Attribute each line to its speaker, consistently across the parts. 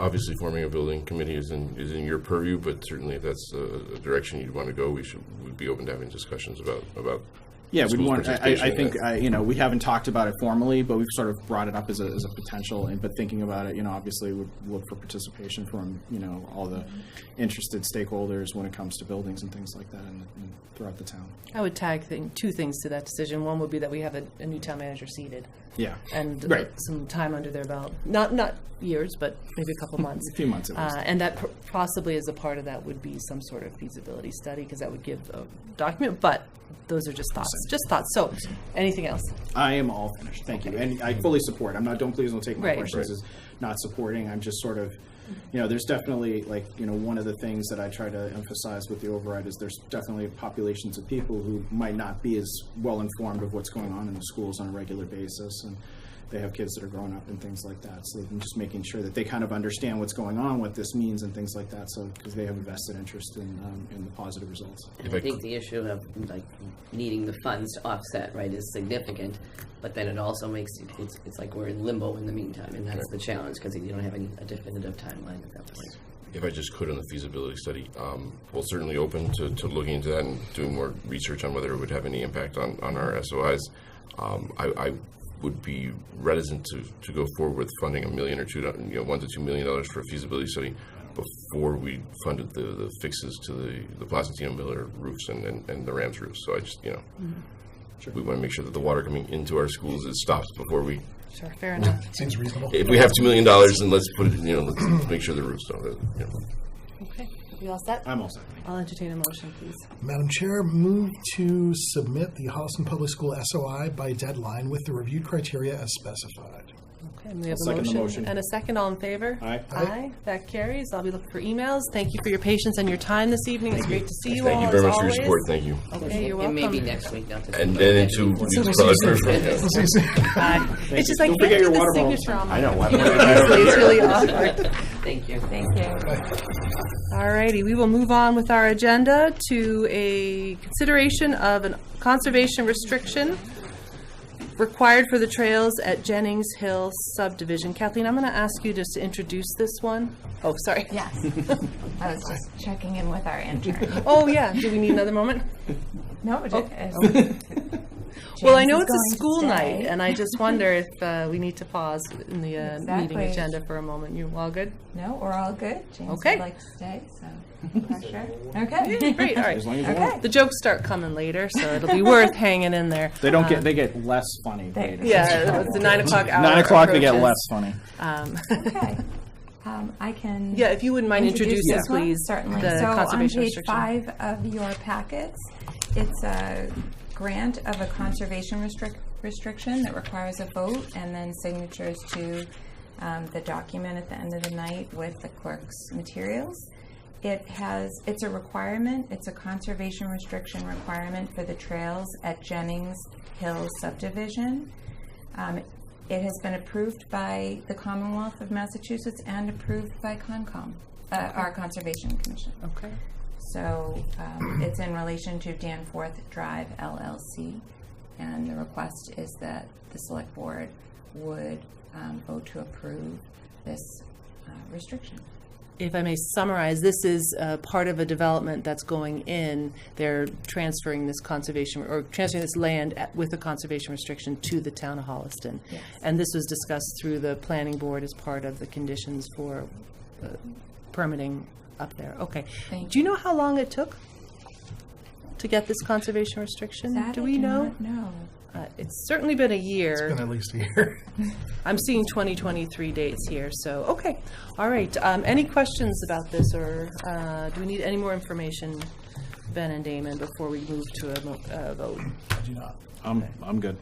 Speaker 1: obviously forming a building committee is in, is in your purview, but certainly if that's a a direction you'd want to go, we should, we'd be open to having discussions about, about.
Speaker 2: Yeah, we
Speaker 1: schools'
Speaker 2: want, I- I, I
Speaker 1: participation in
Speaker 2: think,
Speaker 1: that.
Speaker 2: I, you know, we haven't talked about it formally, but we've sort of brought it up as a, as a potential, and, but thinking about it, you know, obviously would look for participation from, you know, all the interested stakeholders when it comes to buildings and things like that and and throughout the town.
Speaker 3: I would tag thing, two things to that decision. One would be that we have a, a new town manager seated
Speaker 2: Yeah.
Speaker 3: and
Speaker 2: Right.
Speaker 3: some time under their belt. Not not years, but maybe a couple months.
Speaker 2: A few months at least.
Speaker 3: Uh, and that pr- possibly as a part of that would be some sort of feasibility study because that would give a document. But those are just thoughts, just thoughts. So, anything else?
Speaker 2: I am all finished, thank you, and I fully support, I'm not, don't please don't take my
Speaker 3: Right.
Speaker 2: questions as not supporting, I'm just sort of, you know, there's definitely, like, you know, one of the things that I try to emphasize with the override is there's definitely populations of people who might not be as well-informed of what's going on in the schools on a regular basis, and they have kids that are growing up and things like that, so I'm just making sure that they kind of understand what's going on, what this means and things like that, so, because they have a vested interest in, um, in the positive results.
Speaker 1: If
Speaker 4: I
Speaker 1: I
Speaker 4: think
Speaker 1: could-
Speaker 4: the issue of like needing the funds to offset, right, is significant, but then it also makes, it- it's, it's like we're in limbo in the meantime, and that's the challenge, because you don't have any a definitive timeline at that point.
Speaker 1: If I just could on the feasibility study, um, well, certainly open to, to looking into that and doing more research on whether it would have any impact on, on our SOIs. Um, I, I would be reticent to, to go forward with funding a million or two, do- you know, one to two million dollars for a feasibility study before we funded the, the fixes to the, the Placentino Miller roofs and, and, and the Rams roofs. So I just, you know, we want to make sure that the water coming into our schools is stopped before we,
Speaker 3: Sure, fair enough.
Speaker 5: Seems reasonable.
Speaker 1: if we have two million dollars, then let's put it, you know, let's make sure the roofs don't, you know.
Speaker 3: Okay, we all set?
Speaker 2: I'm all set, thank you.
Speaker 3: I'll entertain a motion, please.
Speaker 5: Madam Chair, move to submit the Holliston Public School SOI by deadline with the reviewed criteria as specified.
Speaker 3: Okay, and we have a
Speaker 2: second the
Speaker 3: motion.
Speaker 2: motion.
Speaker 3: And a second, all in favor?
Speaker 2: Aye.
Speaker 5: Aye.
Speaker 3: Aye, that carries. I'll be looking for emails. Thank you for your patience and your time this evening. It's great to see you all,
Speaker 1: Thank you very
Speaker 3: as
Speaker 1: much for your
Speaker 3: always.
Speaker 1: support. Thank you.
Speaker 3: Okay, you're
Speaker 4: It may be
Speaker 3: welcome.
Speaker 4: next week, not this.
Speaker 1: And
Speaker 4: week,
Speaker 1: then
Speaker 4: but
Speaker 1: into
Speaker 4: next week.
Speaker 1: weeks probably
Speaker 3: Bye. It's just like,
Speaker 2: Don't forget your
Speaker 3: the
Speaker 2: water bottle.
Speaker 3: signature on my. I know. It's really awkward.
Speaker 4: Thank you.
Speaker 3: All righty, we will move on with our agenda to a consideration of a conservation restriction required for the trails at Jennings Hill subdivision. Kathleen, I'm going to ask you just to introduce this one. Oh, sorry.
Speaker 6: Yes. I was just checking in with our intern.
Speaker 3: Oh, yeah. Do we need another moment?
Speaker 6: No, it is.
Speaker 3: Well, I
Speaker 6: James
Speaker 3: know
Speaker 6: is
Speaker 3: it's a
Speaker 6: going to
Speaker 3: school
Speaker 6: stay.
Speaker 3: night, and I just wonder if uh, we need to pause in the uh, meeting
Speaker 6: Exactly.
Speaker 3: agenda for a moment. You all good?
Speaker 6: No, we're all good. James
Speaker 3: Okay.
Speaker 6: would like to stay, so no pressure. Okay.
Speaker 3: Great, all
Speaker 2: As
Speaker 3: right.
Speaker 2: long as you want.
Speaker 6: Okay.
Speaker 3: The jokes start coming later, so it'll be worth hanging in there. Um,
Speaker 2: They don't get. They get less funny
Speaker 6: They-
Speaker 2: later.
Speaker 3: Yeah, it's the nine o'clock hour.
Speaker 2: Nine o'clock, they get
Speaker 3: approaches.
Speaker 2: less funny.
Speaker 3: Um,
Speaker 6: Okay. Um, I can.
Speaker 3: Yeah, if you wouldn't mind introducing,
Speaker 6: this one?
Speaker 3: please,
Speaker 6: Certainly.
Speaker 3: the
Speaker 6: so
Speaker 3: conservation
Speaker 6: on page
Speaker 3: restriction.
Speaker 6: five of your packets, it's a grant of a conservation restrict restriction that requires a vote and then signatures to um, the document at the end of the night with the clerk's materials. It has, it's a requirement, it's a conservation restriction requirement for the trails at Jennings Hill subdivision. Um, It has been approved by the Commonwealth of Massachusetts and approved by Concom, uh, our Conservation Commission.
Speaker 3: Okay.
Speaker 6: So um, it's in relation to Danforth Drive LLC, and the request is that the Select Board would um, vote to approve this uh, restriction.
Speaker 3: If I may summarize, this is uh, part of a development that's going in. They're transferring this conservation, or transferring this land at- with a conservation restriction to the town of Holliston.
Speaker 6: Yes.
Speaker 3: And this was discussed through the planning board as part of the conditions for uh, permitting up there. Okay.
Speaker 6: Thank
Speaker 3: Do you know how long it took to get this conservation restriction?
Speaker 6: That
Speaker 3: Do
Speaker 6: I
Speaker 3: we know?
Speaker 6: not know.
Speaker 3: Uh, It's certainly been a year.
Speaker 5: Been at least a year.
Speaker 3: I'm seeing 2023 dates here, so, okay. All right, um, any questions about this, or, uh, do we need any more information, Ben and Damon, before we move to a, mo- uh vote?
Speaker 2: I'm, I'm good.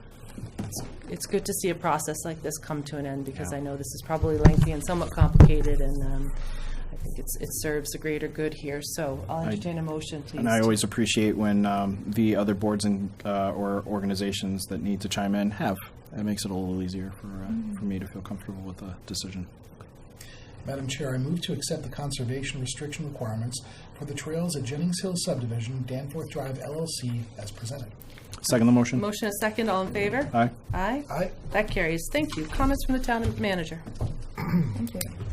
Speaker 3: It's good to see a process like this come to an end, because I know this is probably lengthy and somewhat complicated, and, um, I think it's, it serves the greater good here, so I'll entertain a motion, please.
Speaker 2: And I always appreciate when um, the other boards and uh, or organizations that need to chime in have. It makes it a little easier for uh, for me to feel comfortable with the decision.
Speaker 5: Madam Chair, I move to accept the conservation restriction requirements for the trails at Jennings Hill subdivision, Danforth Drive LLC, as presented.
Speaker 2: Second the motion.
Speaker 3: Motion and second, all in favor?
Speaker 2: Aye.
Speaker 3: Aye?
Speaker 5: Aye.
Speaker 3: That carries, thank you. Comments from the town manager?
Speaker 6: Thank you.